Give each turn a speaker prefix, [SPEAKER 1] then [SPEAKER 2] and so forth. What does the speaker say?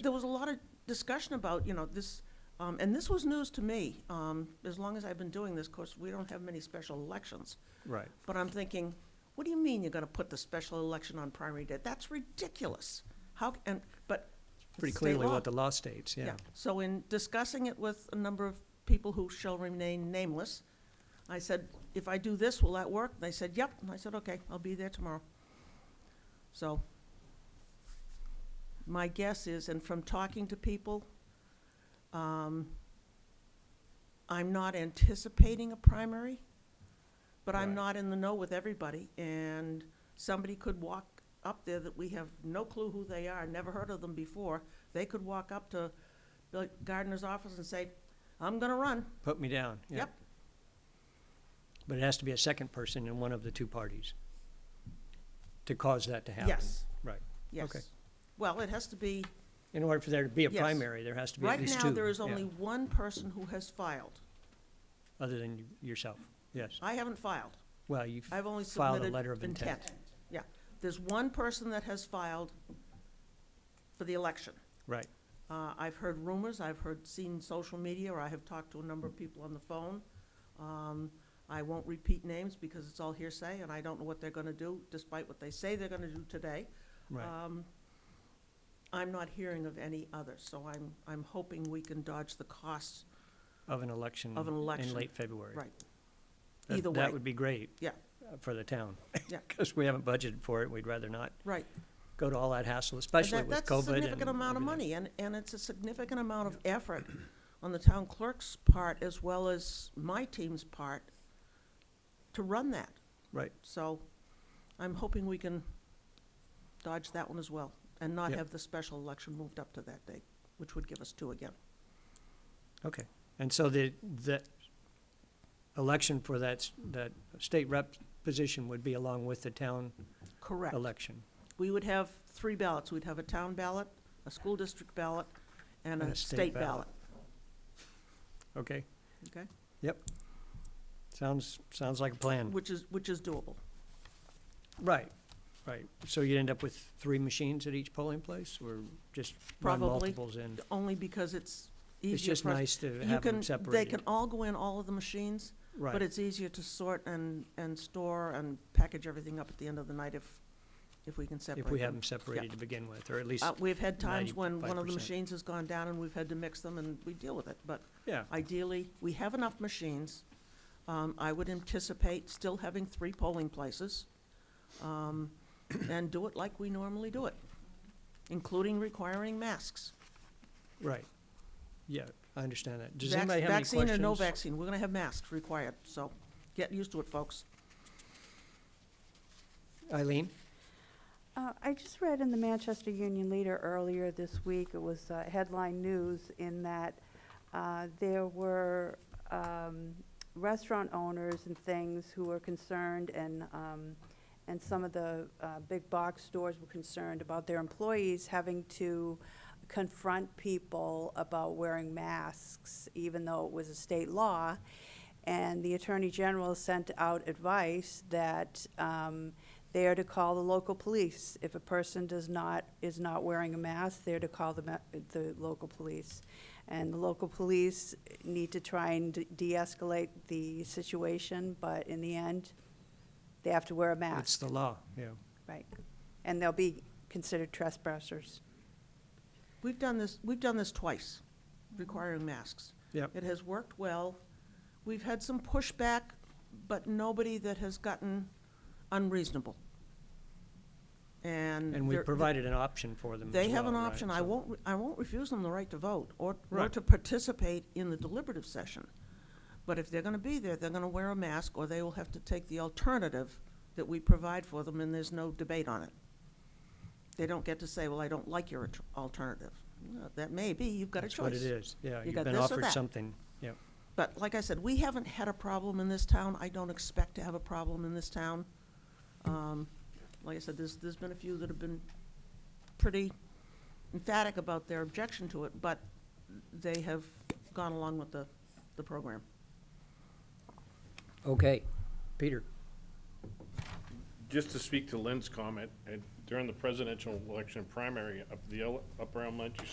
[SPEAKER 1] there was a lot of discussion about, you know, this, um, and this was news to me. Um, as long as I've been doing this, of course, we don't have many special elections.
[SPEAKER 2] Right.
[SPEAKER 1] But I'm thinking, what do you mean you're gonna put the special election on primary day? That's ridiculous. How, c- and, but. it's
[SPEAKER 2] Pretty
[SPEAKER 1] state
[SPEAKER 2] clearly
[SPEAKER 1] law.
[SPEAKER 2] what the law states, yeah.
[SPEAKER 1] So in discussing it with a number of people who shall remain nameless, I said, if I do this, will that work? And they said, yep. And I said, okay, I'll be there tomorrow. So my guess is, and from talking to people, um, I'm not anticipating a primary, but I'm
[SPEAKER 3] Right.
[SPEAKER 1] not in the know with everybody. And somebody could walk up there that we have no clue who they are, never heard of them before. They could walk up to the gardener's office and say, I'm gonna run.
[SPEAKER 2] Put me down, yeah.
[SPEAKER 1] Yep.
[SPEAKER 2] But it has to be a second person in one of the two parties to cause that to happen.
[SPEAKER 1] Yes,
[SPEAKER 2] Right. Okay.
[SPEAKER 1] yes. Well, it has to be,
[SPEAKER 2] In order for there to be a
[SPEAKER 1] Yes.
[SPEAKER 2] primary, there has to be at
[SPEAKER 1] right
[SPEAKER 2] least two.
[SPEAKER 1] now, there is
[SPEAKER 2] yeah,
[SPEAKER 1] only one person who has filed.
[SPEAKER 2] Other than you- yourself, yes.
[SPEAKER 1] I haven't filed.
[SPEAKER 2] Well, you
[SPEAKER 1] I've only
[SPEAKER 2] Filed a
[SPEAKER 1] submitted
[SPEAKER 2] letter of intent.
[SPEAKER 1] intent. Yeah. There's one person that has filed for the election.
[SPEAKER 2] right,
[SPEAKER 1] Uh, I've heard rumors, I've heard, seen social media, or I have talked to a number of people on the phone. Um, I won't repeat names because it's all hearsay, and I don't know what they're gonna do, despite what they say they're gonna do today.
[SPEAKER 2] right.
[SPEAKER 1] Um, I'm not hearing of any others, so I'm, I'm hoping we can dodge the costs
[SPEAKER 2] Of an election
[SPEAKER 1] of an
[SPEAKER 2] in
[SPEAKER 1] election.
[SPEAKER 2] late February.
[SPEAKER 1] Right.
[SPEAKER 2] That-
[SPEAKER 1] Either way.
[SPEAKER 2] That would be great.
[SPEAKER 1] Yeah.
[SPEAKER 2] uh, For the town.
[SPEAKER 1] Yeah.
[SPEAKER 2] Because we haven't budgeted for it. We'd rather not
[SPEAKER 1] Right.
[SPEAKER 2] go to all that hassle,
[SPEAKER 1] And
[SPEAKER 2] especially
[SPEAKER 1] that-
[SPEAKER 2] with COVID and
[SPEAKER 1] That's a significant amount of money,
[SPEAKER 2] everything.
[SPEAKER 1] and, and it's a significant amount of effort on the town clerk's part as well as my team's part to run that.
[SPEAKER 2] Right.
[SPEAKER 1] So I'm hoping we can dodge that one as well and not
[SPEAKER 2] Yep.
[SPEAKER 1] have the special election moved up to that date, which would give us two again.
[SPEAKER 2] Okay, and so the, the election for that, s- that state rep position would be along with the town
[SPEAKER 1] Correct.
[SPEAKER 2] election?
[SPEAKER 1] We would have three ballots. We'd have a town ballot, a school district ballot, and a state ballot.
[SPEAKER 2] Okay,
[SPEAKER 1] Okay?
[SPEAKER 2] sounds, sounds like a plan.
[SPEAKER 1] Which is, which is doable.
[SPEAKER 2] Right, right. So you'd end up with three machines at each polling place, or just run
[SPEAKER 1] Probably.
[SPEAKER 2] multiples in?
[SPEAKER 1] Only because it's easier
[SPEAKER 2] It's just
[SPEAKER 1] for us-
[SPEAKER 2] nice to
[SPEAKER 1] You
[SPEAKER 2] have
[SPEAKER 1] can,
[SPEAKER 2] them
[SPEAKER 1] they
[SPEAKER 2] separated.
[SPEAKER 1] can all go in all of the machines, but
[SPEAKER 2] Right,
[SPEAKER 1] it's easier to sort and, and store and package everything up at the end of the night if, if we can separate
[SPEAKER 2] if
[SPEAKER 1] them.
[SPEAKER 2] we have them separated to begin with, or at least,
[SPEAKER 1] Uh, we've had times when one of the
[SPEAKER 2] 95%.
[SPEAKER 1] machines has gone down and we've had to mix them and we deal with it, but
[SPEAKER 2] yeah,
[SPEAKER 1] ideally, we have enough machines. Um, I would anticipate still having three polling places, um, and do it like we normally do it, including requiring masks.
[SPEAKER 2] right. Yeah, I understand that. Does
[SPEAKER 1] Vac-
[SPEAKER 2] anybody have any questions?
[SPEAKER 1] Vaccine or no vaccine, we're gonna have masks required, so get used to it, folks.
[SPEAKER 2] Eileen?
[SPEAKER 4] Uh, I just read in the Manchester Union Leader earlier this week, it was uh, headline news in that uh, there were um, restaurant owners and things who were concerned and, um, and some of the uh, big box stores were concerned about their employees having to confront people about wearing masks, even though it was a state law. And the Attorney General sent out advice that um, they are to call the local police. If a person does not, is not wearing a mask, they're to call the, ma- the local police. And the local police need to try and de- de-escalate the situation, but in the end, they have to wear a mask.
[SPEAKER 2] It's the law, yeah.
[SPEAKER 4] Right. And they'll be considered trespassers.
[SPEAKER 1] We've done this, we've done this twice, requiring masks.
[SPEAKER 2] Yep.
[SPEAKER 1] It has worked well. We've had some pushback, but nobody that has gotten unreasonable. And.
[SPEAKER 2] And we
[SPEAKER 1] there-
[SPEAKER 2] provided an option for them
[SPEAKER 1] Mm,
[SPEAKER 2] as
[SPEAKER 1] They have an
[SPEAKER 2] well, right,
[SPEAKER 1] option. I
[SPEAKER 2] so-
[SPEAKER 1] won't, re- I won't refuse them the right to vote or, or
[SPEAKER 2] Right.
[SPEAKER 1] to participate in the deliberative session. But if they're gonna be there, they're gonna wear a mask or they will have to take the alternative that we provide for them and there's no debate on it. They don't get to say, well, I don't like your at- alternative. No, That may be, you've got a
[SPEAKER 2] That's what it
[SPEAKER 1] choice.
[SPEAKER 2] is, yeah. You've
[SPEAKER 1] got
[SPEAKER 2] been
[SPEAKER 1] this or
[SPEAKER 2] offered
[SPEAKER 1] that.
[SPEAKER 2] something, yeah.
[SPEAKER 1] But like I said, we haven't had a problem in this town. I don't expect to have a problem in this town. Um, Like I said, there's, there's been a few that have been pretty emphatic about their objection to it, but they have gone along with the, the program.
[SPEAKER 2] Okay, Peter,
[SPEAKER 3] Just to speak to Lynn's comment, and during the presidential election primary, up the ele- Upper Elementary